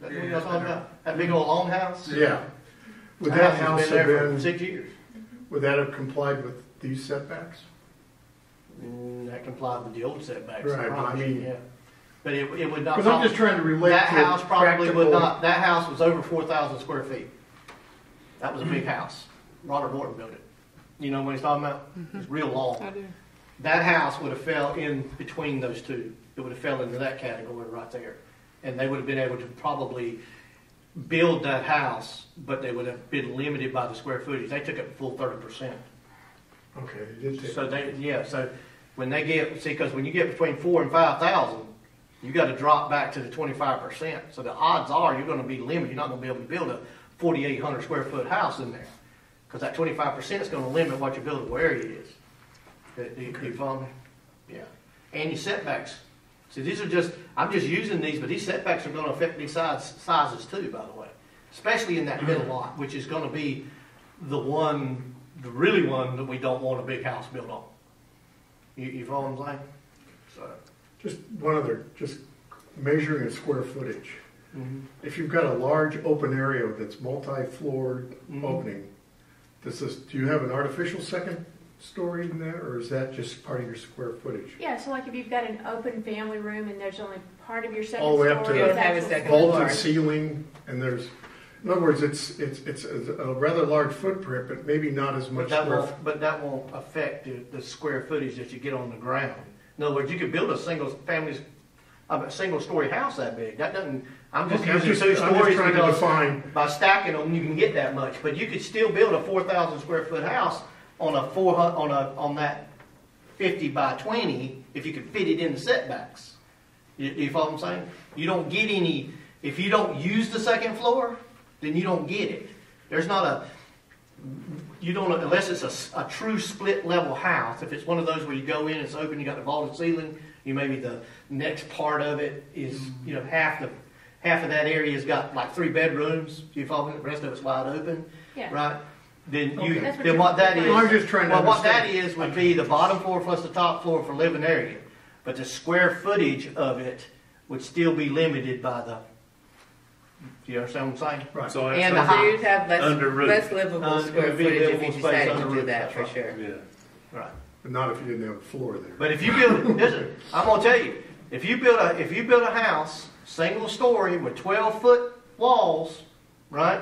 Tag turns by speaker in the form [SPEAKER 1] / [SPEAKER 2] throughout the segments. [SPEAKER 1] That's what y'all talking about, that big old long house?
[SPEAKER 2] Yeah. Would
[SPEAKER 1] That
[SPEAKER 2] that
[SPEAKER 1] house
[SPEAKER 2] house
[SPEAKER 1] has
[SPEAKER 2] have
[SPEAKER 1] been there for
[SPEAKER 2] been,
[SPEAKER 1] six years.
[SPEAKER 2] would that have complied with these setbacks?
[SPEAKER 1] Mm, That complied with the old setbacks.
[SPEAKER 2] Right, but I
[SPEAKER 1] probably,
[SPEAKER 2] mean-
[SPEAKER 1] yeah. But it, it would not.
[SPEAKER 2] Because I'm just trying to relate to
[SPEAKER 1] That house probably would
[SPEAKER 2] practical-
[SPEAKER 1] not, that house was over four thousand square feet. That was a big house. Robert Morton built it. You know what he's talking about? It's real long.
[SPEAKER 3] Mm-hmm. I do.
[SPEAKER 1] That house would have fell in between those two. It would have fell into that category right there. And they would have been able to probably build that house, but they would have been limited by the square footage. They took up the full thirty percent.
[SPEAKER 2] Okay, it did take-
[SPEAKER 1] So they, yeah, so when they get, see, because when you get between four and five thousand, you gotta drop back to the twenty-five percent. So the odds are you're gonna be limited, you're not gonna be able to build a forty-eight hundred square foot house in there. Because that twenty-five percent is gonna limit what your buildable area is. Do- Do you, do you follow me? Yeah. And your setbacks. See, these are just, I'm just using these, but these setbacks are gonna affect these size, sizes too, by the way. Especially in that middle lot, which is gonna be the one, the really one that we don't want a big house built on. You, you follow what I'm saying? So.
[SPEAKER 2] Just one other, just measuring a square footage.
[SPEAKER 1] Mm-hmm.
[SPEAKER 2] If you've got a large open area that's multi-floored
[SPEAKER 1] Mhm.
[SPEAKER 2] opening, does this, do you have an artificial second story in there, or is that just part of your square footage?
[SPEAKER 4] Yeah, so like if you've got an open family room and there's only part of your second
[SPEAKER 2] All the way
[SPEAKER 4] story.
[SPEAKER 2] up to
[SPEAKER 4] is
[SPEAKER 2] the- You
[SPEAKER 5] don't have a
[SPEAKER 4] actual-
[SPEAKER 5] second floor.
[SPEAKER 2] Vaulted ceiling, and there's, in other words, it's, it's, it's a a rather large footprint, but maybe not as much
[SPEAKER 1] But that
[SPEAKER 2] square.
[SPEAKER 1] won't, but that won't affect the, the square footage that you get on the ground. In other words, you could build a single family, a single story house that big. That doesn't, I'm just
[SPEAKER 2] Okay, I'm
[SPEAKER 1] using
[SPEAKER 2] just-
[SPEAKER 1] two
[SPEAKER 2] I'm just
[SPEAKER 1] stories
[SPEAKER 2] trying to
[SPEAKER 1] because
[SPEAKER 2] define.
[SPEAKER 1] by stacking them, you can get that much. But you could still build a four thousand square foot house on a four hun, on a, on that fifty by twenty, if you could fit it in the setbacks. You, you follow what I'm saying? You don't get any, if you don't use the second floor, then you don't get it. There's not a, you don't, unless it's a s- a, true split level house, if it's one of those where you go in, it's open, you got the vaulted ceiling, you maybe the next part of it is,
[SPEAKER 2] Mm-hmm.
[SPEAKER 1] you know, half the, half of that area's got like three bedrooms, you follow me, the rest of it's wide open,
[SPEAKER 4] Yeah.
[SPEAKER 1] right? Then you,
[SPEAKER 2] Okay.
[SPEAKER 4] That's what
[SPEAKER 1] then
[SPEAKER 4] you're-
[SPEAKER 1] what that is.
[SPEAKER 2] Well, I'm just trying to
[SPEAKER 1] Well, what that
[SPEAKER 2] understand.
[SPEAKER 1] is would be the bottom floor plus the top floor for living area, but the square footage of it would still be limited by the, do you understand what I'm saying?
[SPEAKER 2] Right.
[SPEAKER 6] So
[SPEAKER 5] And
[SPEAKER 1] the
[SPEAKER 6] that's,
[SPEAKER 1] high-
[SPEAKER 5] so you'd have less,
[SPEAKER 6] Under roof.
[SPEAKER 5] less livable
[SPEAKER 1] Uh,
[SPEAKER 5] square
[SPEAKER 1] it'd be
[SPEAKER 5] footage if
[SPEAKER 1] livable
[SPEAKER 5] you
[SPEAKER 1] space
[SPEAKER 5] decided
[SPEAKER 1] under
[SPEAKER 5] to do
[SPEAKER 1] roof,
[SPEAKER 5] that
[SPEAKER 1] that's
[SPEAKER 5] for
[SPEAKER 1] right.
[SPEAKER 5] sure.
[SPEAKER 6] yeah.
[SPEAKER 1] Right.
[SPEAKER 2] But not if you didn't have a floor there.
[SPEAKER 1] But if you build, listen, I'm gonna tell you, if you build a, if you build a house, single story with twelve foot walls, right?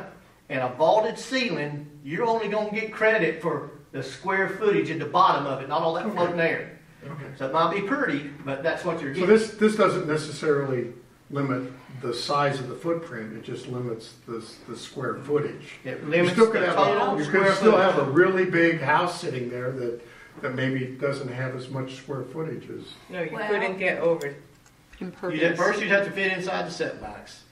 [SPEAKER 1] And a vaulted ceiling, you're only gonna get credit for the square footage at the bottom of it, not all that floating air.
[SPEAKER 2] Okay.
[SPEAKER 1] So it might be pretty, but that's what you're
[SPEAKER 2] So
[SPEAKER 1] getting.
[SPEAKER 2] this, this doesn't necessarily limit the size of the footprint, it just limits the, the square footage.
[SPEAKER 1] It
[SPEAKER 2] You
[SPEAKER 1] limits the
[SPEAKER 2] still could have,
[SPEAKER 1] total
[SPEAKER 2] a- you
[SPEAKER 1] square
[SPEAKER 2] could still have a
[SPEAKER 1] footage.
[SPEAKER 2] really big house sitting there that, that maybe doesn't have as much square footage as.
[SPEAKER 5] No, you
[SPEAKER 4] Well-
[SPEAKER 5] couldn't get over.
[SPEAKER 1] You'd, at first, you'd have to fit inside the setbacks.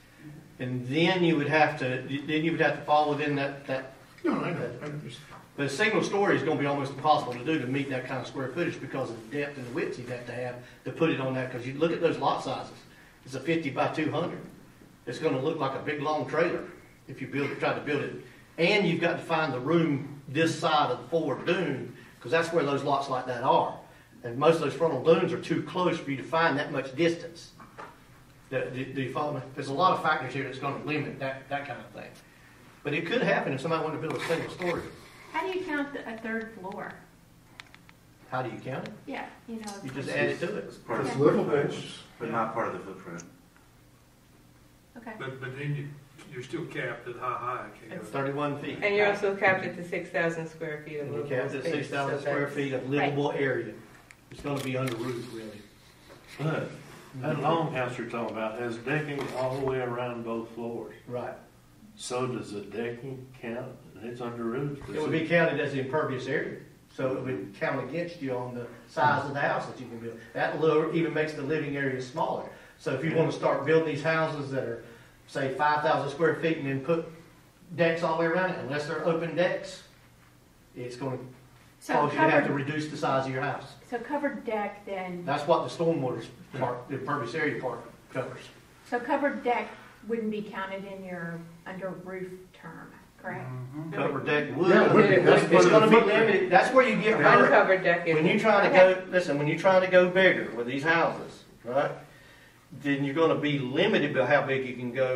[SPEAKER 1] And then you would have to, then you would have to fall within that, that
[SPEAKER 2] No, I know, I understand.
[SPEAKER 1] But a single story is gonna be almost impossible to do to meet that kind of square footage because of the depth and the width you'd have to have to put it on that, because you look at those lot sizes. It's a fifty by two hundred. It's gonna look like a big, long trailer if you build, try to build it. And you've got to find the room this side of the forward dune, because that's where those lots like that are. And most of those frontal dunes are too close for you to find that much distance. Do, do- do you follow me? There's a lot of factors here that's gonna limit that, that kind of thing. But it could happen if somebody wanted to build a single story.
[SPEAKER 4] How do you count the- a third floor?
[SPEAKER 1] How do you count it?
[SPEAKER 4] Yeah, you know.
[SPEAKER 1] You just add it to it.
[SPEAKER 7] It's part of the
[SPEAKER 2] It's
[SPEAKER 7] footprint,
[SPEAKER 2] livable.
[SPEAKER 7] but not part of the footprint.
[SPEAKER 4] Okay.
[SPEAKER 8] But, but then you, you're still capped at how high it can go.
[SPEAKER 1] Thirty-one feet.
[SPEAKER 5] And you're also capped at the six thousand square feet of
[SPEAKER 1] And you
[SPEAKER 5] livable
[SPEAKER 1] cap
[SPEAKER 5] space.
[SPEAKER 1] it at six thousand
[SPEAKER 5] so
[SPEAKER 1] square
[SPEAKER 5] that's-
[SPEAKER 1] feet of livable area. It's gonna be under roof, really.
[SPEAKER 6] But that longhouse you're talking about has decking all the way around both floors.
[SPEAKER 1] Right.
[SPEAKER 6] So does the decking count? It's under roof.
[SPEAKER 1] It would be counted as the impervious area, so it would count against you on the size of the house that you can build. That lower, even makes the living area smaller. So if you wanna start building these houses that are, say, five thousand square feet and then put decks all the way around it, unless they're open decks, it's gonna
[SPEAKER 4] So
[SPEAKER 1] cause you to have to
[SPEAKER 4] covered,
[SPEAKER 1] reduce the size of your house.
[SPEAKER 4] so covered deck then,
[SPEAKER 1] That's what the stormwater part, the impervious area part covers.
[SPEAKER 4] so covered deck wouldn't be counted in your under roof term, correct?
[SPEAKER 1] Cover deck wood.
[SPEAKER 2] Yeah, it would be. That's part
[SPEAKER 1] It's
[SPEAKER 2] of the
[SPEAKER 1] gonna be
[SPEAKER 2] footprint.
[SPEAKER 1] limited, that's where you get hurt.
[SPEAKER 5] Uncovered deck is.
[SPEAKER 1] When you try to go, listen, when you try to go bigger with these houses, right? Then you're gonna be limited by how big you can go